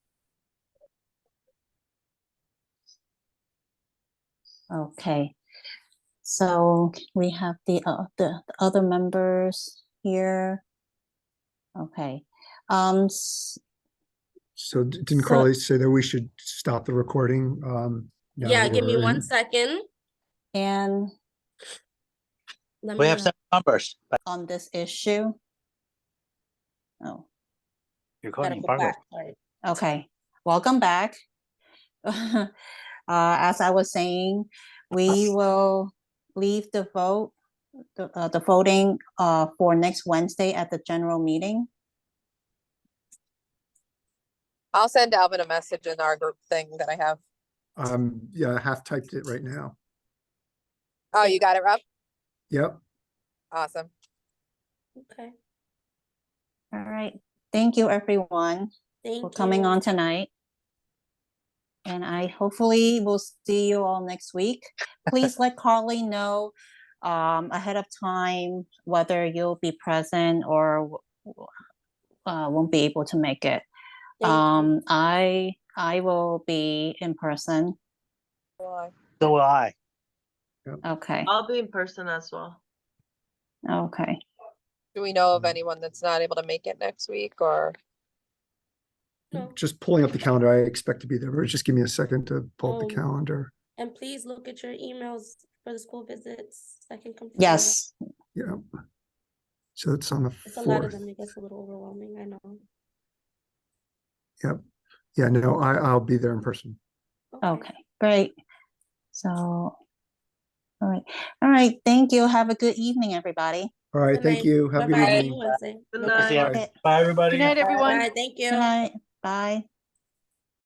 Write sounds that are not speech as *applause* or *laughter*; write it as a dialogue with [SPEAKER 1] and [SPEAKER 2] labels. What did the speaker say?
[SPEAKER 1] Okay. So we have the, uh, the the other members here. Okay, um, s-
[SPEAKER 2] So d- didn't
[SPEAKER 1] So-
[SPEAKER 2] Carly say that we should stop the recording? um, now
[SPEAKER 3] Yeah,
[SPEAKER 2] that
[SPEAKER 3] give me
[SPEAKER 2] we're
[SPEAKER 3] one
[SPEAKER 2] in?
[SPEAKER 3] second.
[SPEAKER 1] and
[SPEAKER 3] Let
[SPEAKER 4] We
[SPEAKER 3] me,
[SPEAKER 4] have
[SPEAKER 3] uh,
[SPEAKER 4] some numbers, but
[SPEAKER 1] on this issue? Oh,
[SPEAKER 4] you're
[SPEAKER 3] gotta
[SPEAKER 4] calling
[SPEAKER 3] go
[SPEAKER 4] progress.
[SPEAKER 3] back, sorry.
[SPEAKER 1] okay, welcome back. *laughs* Uh, as I was saying, we will leave the vote, the, uh, the voting, uh, for next Wednesday at the general meeting.
[SPEAKER 5] I'll send Alvin a message in our group thing that I have.
[SPEAKER 2] Um, yeah, I half typed it right now.
[SPEAKER 5] Oh, you got it, Rob?
[SPEAKER 2] Yep,
[SPEAKER 5] Awesome.
[SPEAKER 3] Okay,
[SPEAKER 1] All right, thank you, everyone.
[SPEAKER 3] thank you.
[SPEAKER 1] for coming on tonight. And I hopefully will see you all next week. Please let Carly know um, ahead of time whether you'll be present or w- w- uh, won't be able to make it.
[SPEAKER 3] Thank you.
[SPEAKER 1] Um, I, I will be in person.
[SPEAKER 5] Well,
[SPEAKER 4] So will I.
[SPEAKER 1] Okay,
[SPEAKER 6] I'll be in person as well.
[SPEAKER 1] okay.
[SPEAKER 5] Do we know of
[SPEAKER 2] Mm.
[SPEAKER 5] anyone that's not able to make it next week or?
[SPEAKER 3] No.
[SPEAKER 2] just pulling up the calendar. I expect to be there, but just give me a second to pull up
[SPEAKER 3] Oh.
[SPEAKER 2] the calendar.
[SPEAKER 3] And please look at your emails for the school visits. I can confirm.
[SPEAKER 1] Yes,
[SPEAKER 2] Yeah. So it's on the
[SPEAKER 3] It's a lot of
[SPEAKER 2] fourth.
[SPEAKER 3] them. It gets a little overwhelming, I know.
[SPEAKER 2] Yeah, no, I, I'll be there in person.
[SPEAKER 1] okay, great. So, all right, all right, thank you. Have a good evening, everybody.
[SPEAKER 2] All right,
[SPEAKER 3] Good
[SPEAKER 2] thank
[SPEAKER 3] night.
[SPEAKER 2] you. Have a good
[SPEAKER 3] Bye-bye. See
[SPEAKER 2] evening.
[SPEAKER 3] you Wednesday.
[SPEAKER 6] Good
[SPEAKER 3] Okay.
[SPEAKER 6] night.
[SPEAKER 4] See ya.
[SPEAKER 1] Okay.
[SPEAKER 4] Bye, everybody.
[SPEAKER 7] Good night, everyone.
[SPEAKER 3] Bye, thank you.
[SPEAKER 1] Good night, bye.